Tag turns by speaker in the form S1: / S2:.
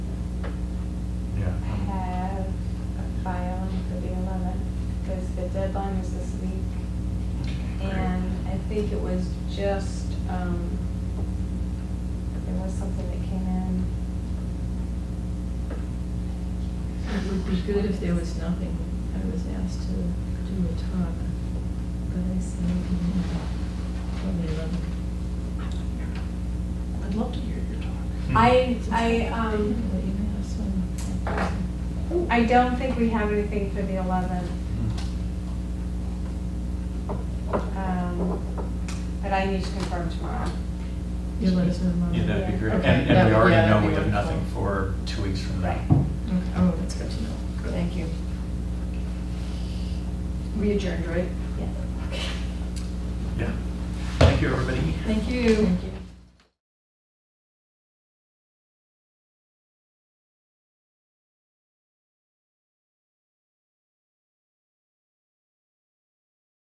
S1: think it was just, um, there was something that came in.
S2: It would be good if there was nothing. I was asked to do a talk, but I said, okay, let me look.
S3: I'd love to hear your talk.
S1: I, I, um,
S2: Well, you may have some-
S1: I don't think we have anything for the eleventh. um, But I need to confirm tomorrow.
S2: You'll let us know tomorrow.
S4: Yeah, that'd be great. And,
S2: Okay,
S4: and
S2: that
S4: we
S2: would- yeah,
S4: already
S2: that'd
S4: know we
S2: be
S4: have
S2: wonderful.
S4: nothing for two weeks from now.
S2: Okay. Oh, that's good to know. Thank you. We adjourned, right?
S4: Yeah. Thank you, everybody.
S2: Thank you. Thank you.